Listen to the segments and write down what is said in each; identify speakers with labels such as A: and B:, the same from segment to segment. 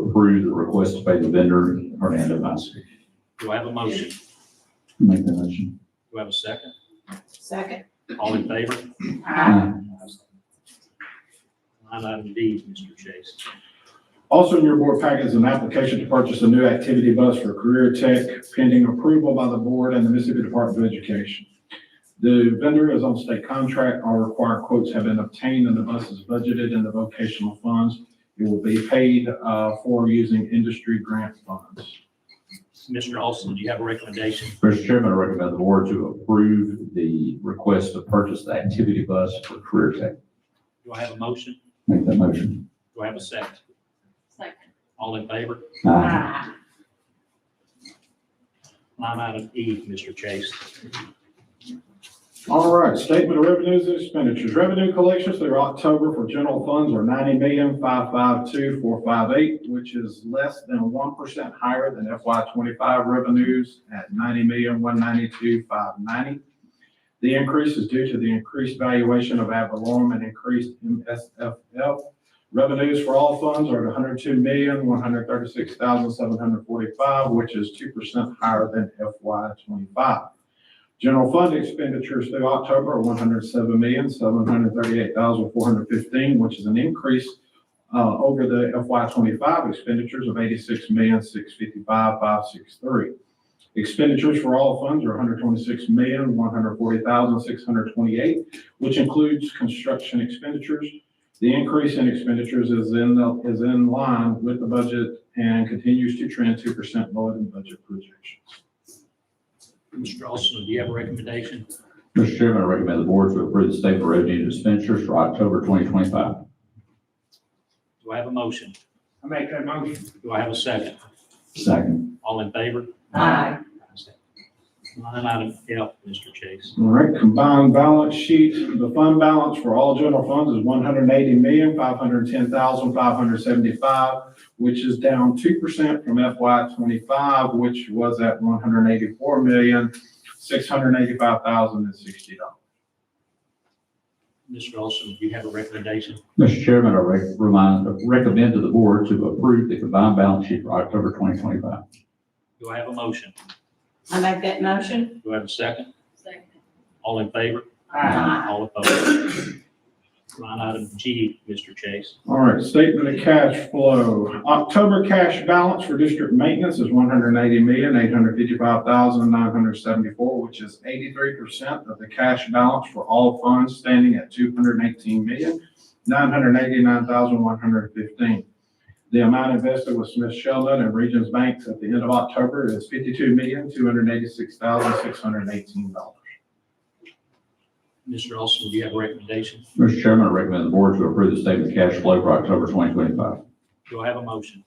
A: approve the request to pay the vendor Hernando Mass.
B: Do I have a motion?
A: Make that motion.
B: Do I have a second?
C: Second.
B: All in favor?
A: Aye.
B: Line item D, Mr. Chase.
D: Also in your board packet is an application to purchase a new activity bus for Career Tech pending approval by the board and the Mississippi Department of Education. The vendor is on state contract. All required quotes have been obtained and the bus is budgeted in the vocational funds. It will be paid uh, for using industry grant funds.
B: Mr. Austin, do you have a recommendation?
A: Mr. Chairman, I recommend the board to approve the request to purchase the activity bus for Career Tech.
B: Do I have a motion?
A: Make that motion.
B: Do I have a second?
C: Second.
B: All in favor?
A: Aye.
B: Line item E, Mr. Chase.
D: All right, statement of revenues and expenditures. Revenue collections through October for general funds are ninety million, five five two, four five eight, which is less than one percent higher than FY twenty-five revenues at ninety million, one ninety-two, five ninety. The increase is due to the increased valuation of ad valorem and increased MSFL. Revenues for all funds are at hundred two million, one hundred thirty-six thousand, seven hundred forty-five, which is two percent higher than FY twenty-five. General fund expenditures through October are one hundred seven million, seven hundred thirty-eight thousand, four hundred fifteen, which is an increase uh, over the FY twenty-five expenditures of eighty-six million, six fifty-five, five six three. Expenditures for all funds are 126,140,628, which includes construction expenditures. The increase in expenditures is in, the- is in line with the budget and continues to trend two percent lower than budget projections.
B: Mr. Austin, do you have a recommendation?
A: Mr. Chairman, I recommend the board to approve the statement of revenue and expenditures for October 2025.
B: Do I have a motion?
E: I make that motion.
B: Do I have a second?
A: Second.
B: All in favor?
C: Aye.
B: Line item F, Mr. Chase.
D: All right, combined balance sheet, the fund balance for all general funds is one hundred eighty million, five hundred ten thousand, five hundred seventy-five, which is down two percent from FY twenty-five, which was at one hundred eighty-four million, six hundred eighty-five thousand and sixty dollars.
B: Mr. Austin, do you have a recommendation?
A: Mr. Chairman, I rec- remind, recommend to the board to approve the combined balance sheet for October 2025.
B: Do I have a motion?
C: I make that motion?
B: Do I have a second?
C: Second.
B: All in favor?
E: Aye.
B: All opposed? Line item G, Mr. Chase.
D: All right, statement of cash flow. October cash balance for district maintenance is one hundred eighty million, eight hundred fifty-five thousand, nine hundred seventy-four, which is eighty-three percent of the cash balance for all funds standing at two hundred eighteen million, nine hundred eighty-nine thousand, one hundred fifteen. The amount invested with Smith Sheldon and Regions Banks at the end of October is fifty-two million, two hundred eighty-six thousand, six hundred eighteen dollars.
B: Mr. Austin, do you have a recommendation?
A: Mr. Chairman, I recommend the board to approve the statement of cash flow for October 2025.
B: Do I have a motion?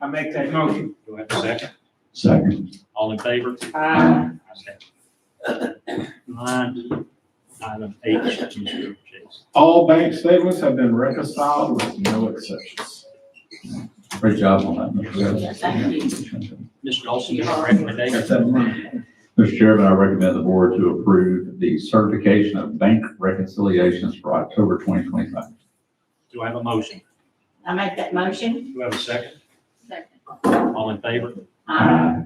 E: I make that motion.
B: Do I have a second?
A: Second.
B: All in favor?
E: Aye.
B: Line item H, Mr. Chase.
D: All bank statements have been reconciled with no exceptions.
A: Great job on that. Mr. Chairman.
C: Thank
B: Mr. Austin, do you have a recommendation?
A: Mr. Chairman, I recommend the board to approve the certification of bank reconciliations for October 2025.
B: Do I have a motion?
C: I make that motion?
B: Do I have a second?
C: Second.
B: All in favor?
C: Aye.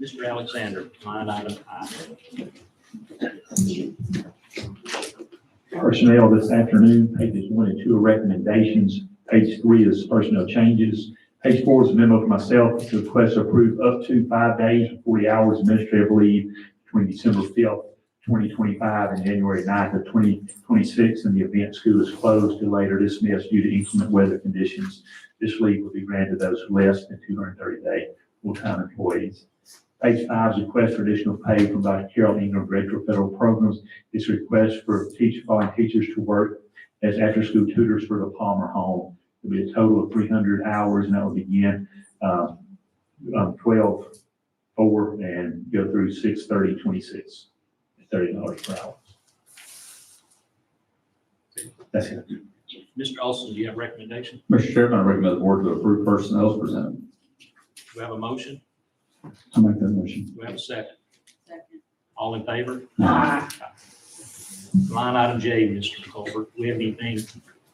B: Mr. Alexander, line item I.
F: personnel this afternoon, pages one and two are recommendations. Page three is personnel changes. Page four is a memo from myself to request to approve up to five days and forty hours administrative leave between December fifth, twenty twenty-five and January 9th of twenty twenty-six, in the event school is closed till later dismissed due to inclement weather conditions. This leave will be granted those less than two hundred and thirty day full-time employees. Page five is a request for additional pay from Dr. Carol Ingram, Director of Federal Programs, this request for teach, following teachers to work as after-school tutors for the Palmer Home. It'll be a total of three hundred hours, and that will begin, um, um, twelve, four, and go through six thirty, twenty-six, thirty dollars per hour. That's it.
B: Mr. Austin, do you have a recommendation?
A: Mr. Chairman, I recommend the board to approve personnel as presented.
B: Do I have a motion?
A: I make that motion.
B: Do I have a second?
C: Second.
B: All in favor?
C: Aye.
B: Line item J, Mr. Colbert, we have anything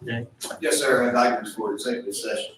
B: today?
G: Yes, sir, I'd like to report executive session.